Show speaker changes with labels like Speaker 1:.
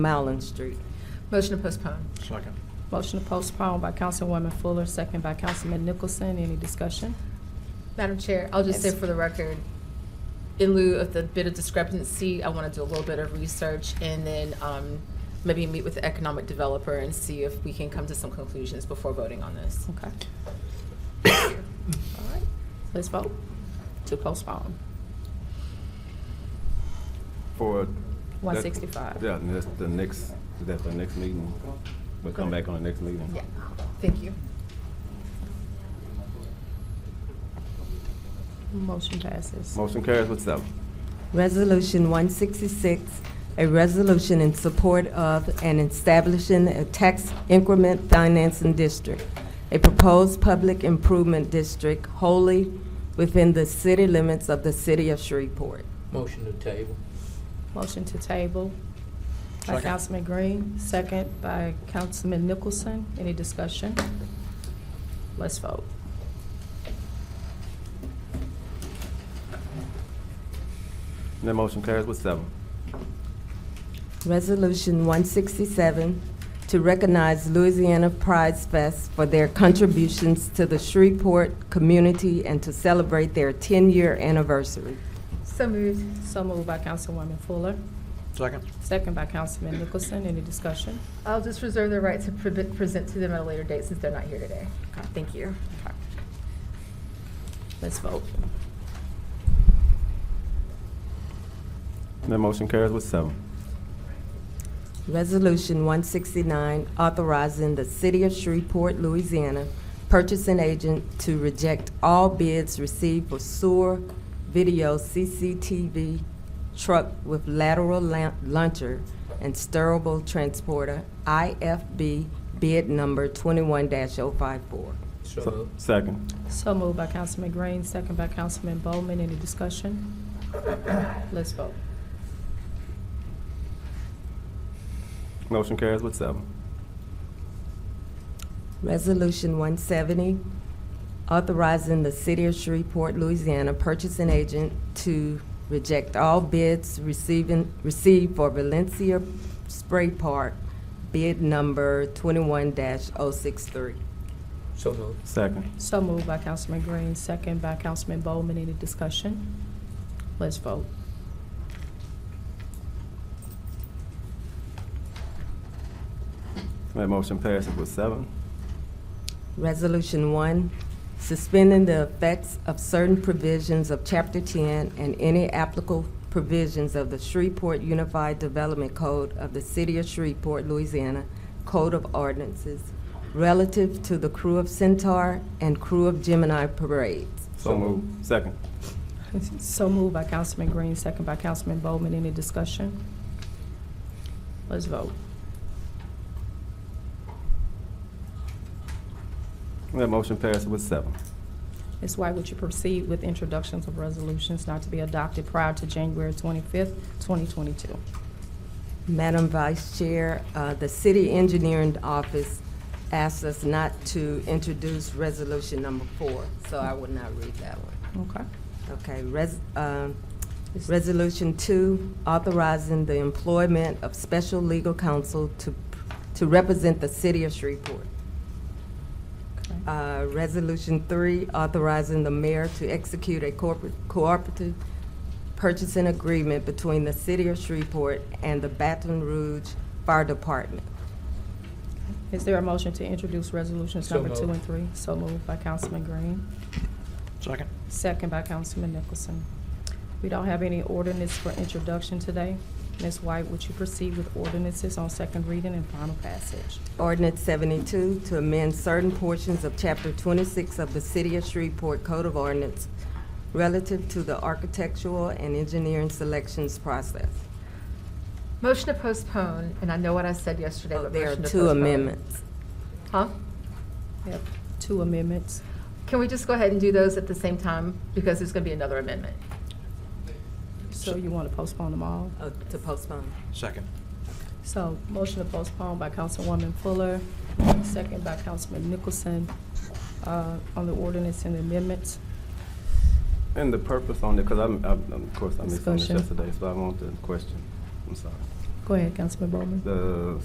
Speaker 1: Mallon Street.
Speaker 2: Motion to postpone.
Speaker 3: Second.
Speaker 4: Motion to postpone by Councilwoman Fuller, second by Councilman Nicholson. Any discussion?
Speaker 2: Madam Chair, I'll just say
Speaker 4: Yes.
Speaker 2: for the record, in lieu of the bit of discrepancy, I want to do a little bit of research and then um, maybe meet with the economic developer and see if we can come to some conclusions before voting on this.
Speaker 4: Okay. All right, let's vote to postpone.
Speaker 5: For.
Speaker 4: One
Speaker 5: that-
Speaker 4: sixty-five.
Speaker 5: Yeah, and that's the next, that's the next meeting. We'll come back on the next meeting.
Speaker 2: Yeah, thank you.
Speaker 4: Motion passes.
Speaker 5: Motion carries with seven.
Speaker 1: Resolution 166, a resolution in support of and establishing a tax increment financing district, a proposed public improvement district wholly within the city limits of the city of Shreveport.
Speaker 6: Motion to table.
Speaker 4: Motion to table by
Speaker 3: Second.
Speaker 4: Councilman Green, second by Councilman Nicholson. Any discussion? Let's vote.
Speaker 5: And that motion carries with seven.
Speaker 1: Resolution 167, to recognize Louisiana Pride Fest for their contributions to the Shreveport community and to celebrate their 10-year anniversary.
Speaker 2: So moved.
Speaker 4: So moved by Councilwoman Fuller,
Speaker 3: Second.
Speaker 4: second by Councilman Nicholson. Any discussion?
Speaker 2: I'll just reserve the right to pre- present to them at a later date since they're not here today. Thank you.
Speaker 4: Okay. Let's vote.
Speaker 5: And that motion carries with seven.
Speaker 1: Resolution 169, authorizing the City of Shreveport, Louisiana, purchasing agent to reject all bids received for sewer video CCTV truck with lateral la- launcher and steerable transporter, IFB bid number 21-054.
Speaker 6: So
Speaker 5: Se-
Speaker 6: moved.
Speaker 5: Second.
Speaker 4: So moved by Councilman Green, second by Councilman Bowman. Any discussion? Let's vote.
Speaker 5: Motion carries with seven.
Speaker 1: Resolution 170, authorizing the City of Shreveport, Louisiana purchasing agent to reject all bids receiving, received for Valencia Spray Park, bid number 21-063.
Speaker 6: So moved.
Speaker 5: Second.
Speaker 4: So moved by Councilman Green, second by Councilman Bowman. Any discussion? Let's vote.
Speaker 5: And that motion passes with seven.
Speaker 1: Resolution 1, suspending the effects of certain provisions of Chapter 10 and any applicable provisions of the Shreveport Unified Development Code of the City of Shreveport, Louisiana, Code of Ordinances relative to the crew of Centaur and crew of Gemini parades.
Speaker 5: So moved. Second.
Speaker 4: So moved by Councilman Green, second by Councilman Bowman. Any discussion? Let's vote.
Speaker 5: And that motion passes with seven.
Speaker 4: Ms. White, would you proceed with introductions of resolutions not to be adopted prior to January 25th, 2022?
Speaker 1: Madam Vice Chair, uh, the City Engineering Office asked us not to introduce Resolution Number 4, so I would not read that one.
Speaker 4: Okay.
Speaker 1: Okay, res, um, resolution two, authorizing the employment of special legal counsel to, to represent the city of Shreveport.
Speaker 4: Okay.
Speaker 1: Uh, resolution three, authorizing the mayor to execute a corporate, cooperative purchasing agreement between the city of Shreveport and the Baton Rouge Fire Department.
Speaker 4: Is there a motion to introduce resolutions
Speaker 6: So
Speaker 4: number two
Speaker 6: moved.
Speaker 4: and three? So moved by Councilman Green,
Speaker 3: Second.
Speaker 4: second by Councilman Nicholson. We don't have any ordinance for introduction today. Ms. White, would you proceed with ordinances on second reading and final passage?
Speaker 1: Ordinance 72 to amend certain portions of Chapter 26 of the City of Shreveport Code of Ordinance relative to the architectural and engineering selections process.
Speaker 2: Motion to postpone, and I know what I said yesterday,
Speaker 1: So
Speaker 2: but
Speaker 1: There are
Speaker 2: motion to
Speaker 1: two
Speaker 2: postpone.
Speaker 1: amendments.
Speaker 2: Huh?
Speaker 4: We have two amendments.
Speaker 2: Can we just go ahead and do those at the same time? Because there's going to be another amendment.
Speaker 4: So you want to postpone them all?
Speaker 2: Oh,
Speaker 1: Uh, To postpone.
Speaker 3: Second.
Speaker 4: So motion to postpone by Councilwoman Fuller, second by Councilman Nicholson, uh, on the ordinance and amendments.
Speaker 5: And the purpose on it, because I'm, I'm, of course, I missed on this
Speaker 4: Discussion.
Speaker 5: yesterday, so I want the question. I'm sorry.
Speaker 4: Go ahead, Councilman Bowman.
Speaker 5: The